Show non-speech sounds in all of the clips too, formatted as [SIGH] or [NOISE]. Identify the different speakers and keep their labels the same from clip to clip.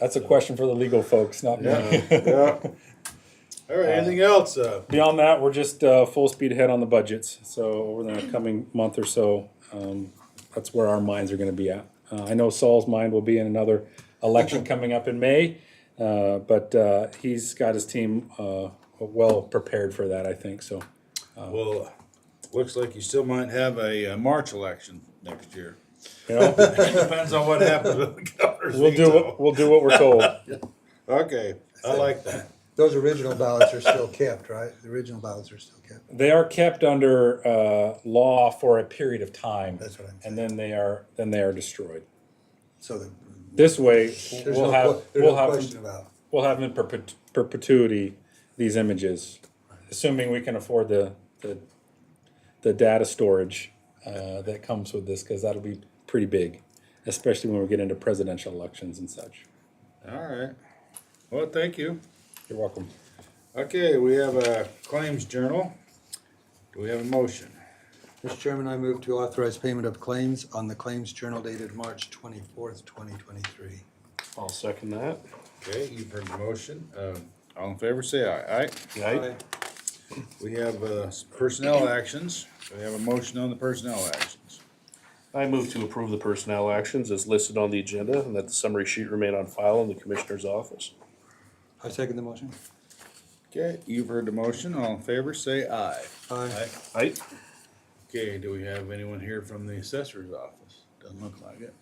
Speaker 1: That's a question for the legal folks, not me.
Speaker 2: Yeah. All right, anything else? Uh,
Speaker 1: [LAUGHS] Beyond that, we're just uh, full speed ahead on the budgets. So over the coming month or so, um, that's where our minds are going to be at. Uh, I know Saul's mind will be in another election coming up in May, uh, but uh, he's got his team uh, well prepared for that. I think so. uh,
Speaker 2: Well, uh, looks like you still might have a uh, March election next
Speaker 1: [LAUGHS]
Speaker 2: year.
Speaker 1: You know,
Speaker 2: Depends on what happens with the governor's
Speaker 1: we'll do what
Speaker 2: veto.
Speaker 1: we'll do what we're told.
Speaker 2: Okay, I like that.
Speaker 3: Those original ballots are still kept, right? The original ballots are still kept.
Speaker 1: They are kept under uh, law for a period of time,
Speaker 3: That's what I'm
Speaker 1: and then they are then they are destroyed.
Speaker 3: So the,
Speaker 1: This way,
Speaker 3: there's
Speaker 1: we'll
Speaker 3: no,
Speaker 1: have
Speaker 3: que- there's
Speaker 1: we'll
Speaker 3: no
Speaker 1: have
Speaker 3: question about
Speaker 1: we'll have in perpet- perpetuity these images, assuming we can afford the the, the data storage uh, that comes with this, because that'll be pretty big, especially when we get into presidential elections and such.
Speaker 2: All right. Well, thank you.
Speaker 1: You're welcome.
Speaker 2: Okay, we have a claims journal. Do we have a motion?
Speaker 3: it. Mr. Chairman, I move to authorize payment of claims on the claims journal dated March twenty-fourth, twenty twenty-three.
Speaker 4: I'll second that.
Speaker 2: Okay, you've heard the motion. Um, All in favor, say aye. Aye.
Speaker 4: Right?
Speaker 2: We have uh, personnel actions. We have a motion on the personnel actions.
Speaker 4: I move to approve the personnel actions as listed on the agenda and that the summary sheet remain on file in the commissioner's office.
Speaker 3: I second the motion.
Speaker 2: Okay, you've heard the motion. All in favor, say aye.
Speaker 3: Aye.
Speaker 4: Aye.
Speaker 2: Okay, do we have anyone here from the assessor's office? Doesn't look like it.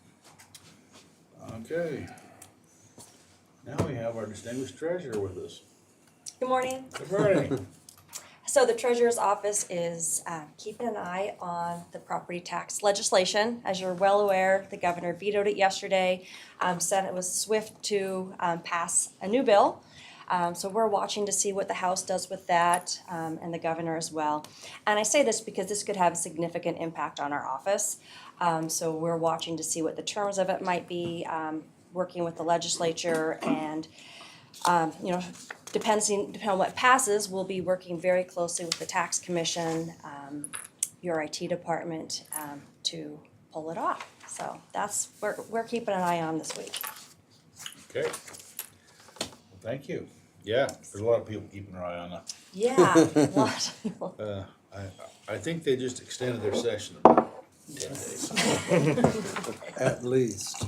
Speaker 2: Okay. Now we have our distinguished treasurer with us.
Speaker 5: Good morning.
Speaker 2: Good morning.
Speaker 5: So the treasurer's office is uh, keeping an eye on the property tax legislation. As you're well aware, the governor vetoed it yesterday. Um, Senate was swift to um, pass a new bill. Um, So we're watching to see what the House does with that um, and the governor as well. And I say this because this could have a significant impact on our office. Um, So we're watching to see what the terms of it might be, um, working with the legislature and you know, depending, depending on what passes, we'll be working very closely with the tax commission, um, your IT department, um, to pull it off. So that's, we're, we're keeping an eye on this week.
Speaker 2: Okay. Well, Thank you. Yeah, there's a lot of people keeping their eye on that.
Speaker 5: Yeah, [LAUGHS] a lot of people.
Speaker 2: Uh, I, I think they just extended their session about ten days.
Speaker 3: At least.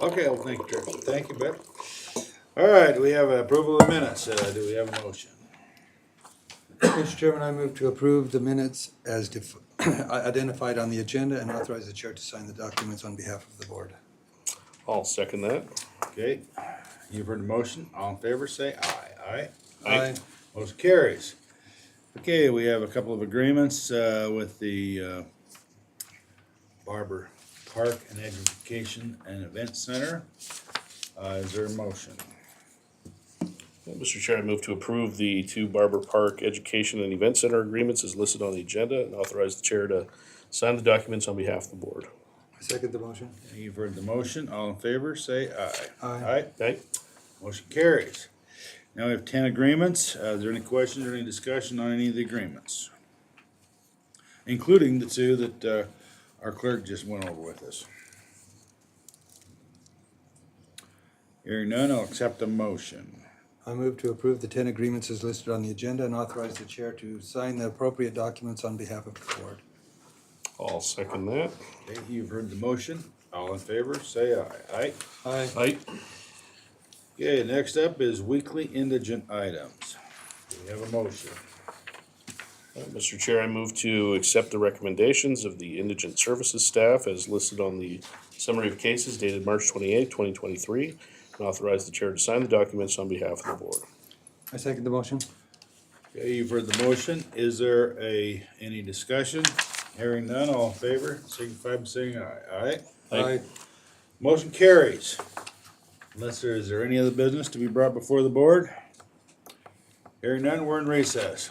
Speaker 2: Okay, well, thank you, Jer- thank you, Beth. All right, we have approval of minutes. Uh, do we have a motion?
Speaker 3: Mr. Chairman, I move to approve the minutes as def- [CLEARS THROAT] identified on the agenda and authorize the chair to sign the documents on behalf of the board.
Speaker 4: I'll second that.
Speaker 2: Okay, you've heard the motion. All in favor, say aye. Aye?
Speaker 4: Aye.
Speaker 2: Motion carries. Okay, we have a couple of agreements uh, with the uh, Barber Park and Education and Event Center. Uh, Is there a motion?
Speaker 4: Mr. Chair, I move to approve the two Barber Park Education and Event Center agreements as listed on the agenda and authorize the chair to sign the documents on behalf of the board.
Speaker 3: I second the motion.
Speaker 2: You've heard the motion. All in favor, say aye.
Speaker 3: Aye.
Speaker 4: Aye.
Speaker 2: Motion carries. Now we have ten agreements. Uh, Is there any questions or any discussion on any of the agreements? Including the two that uh, our clerk just went over with us. Hearing none, I'll accept a motion.
Speaker 3: I move to approve the ten agreements as listed on the agenda and authorize the chair to sign the appropriate documents on behalf of the board.
Speaker 4: I'll second that.
Speaker 2: Okay, you've heard the motion. All in favor, say aye. Aye.
Speaker 3: Aye.
Speaker 4: Aye.
Speaker 2: Okay, next up is weekly indigent items. Do we have a motion?
Speaker 4: Uh, Mr. Chair, I move to accept the recommendations of the indigent services staff as listed on the summary of cases dated March twenty-eighth, twenty twenty-three, and authorize the chair to sign the documents on behalf of the board.
Speaker 3: I second the motion.
Speaker 2: Okay, you've heard the motion. Is there a, any discussion? Hearing none, all in favor, signify by saying aye. Aye?
Speaker 4: Aye.
Speaker 2: Motion carries. Unless there, is there any other business to be brought before the board? Hearing none, we're in recess.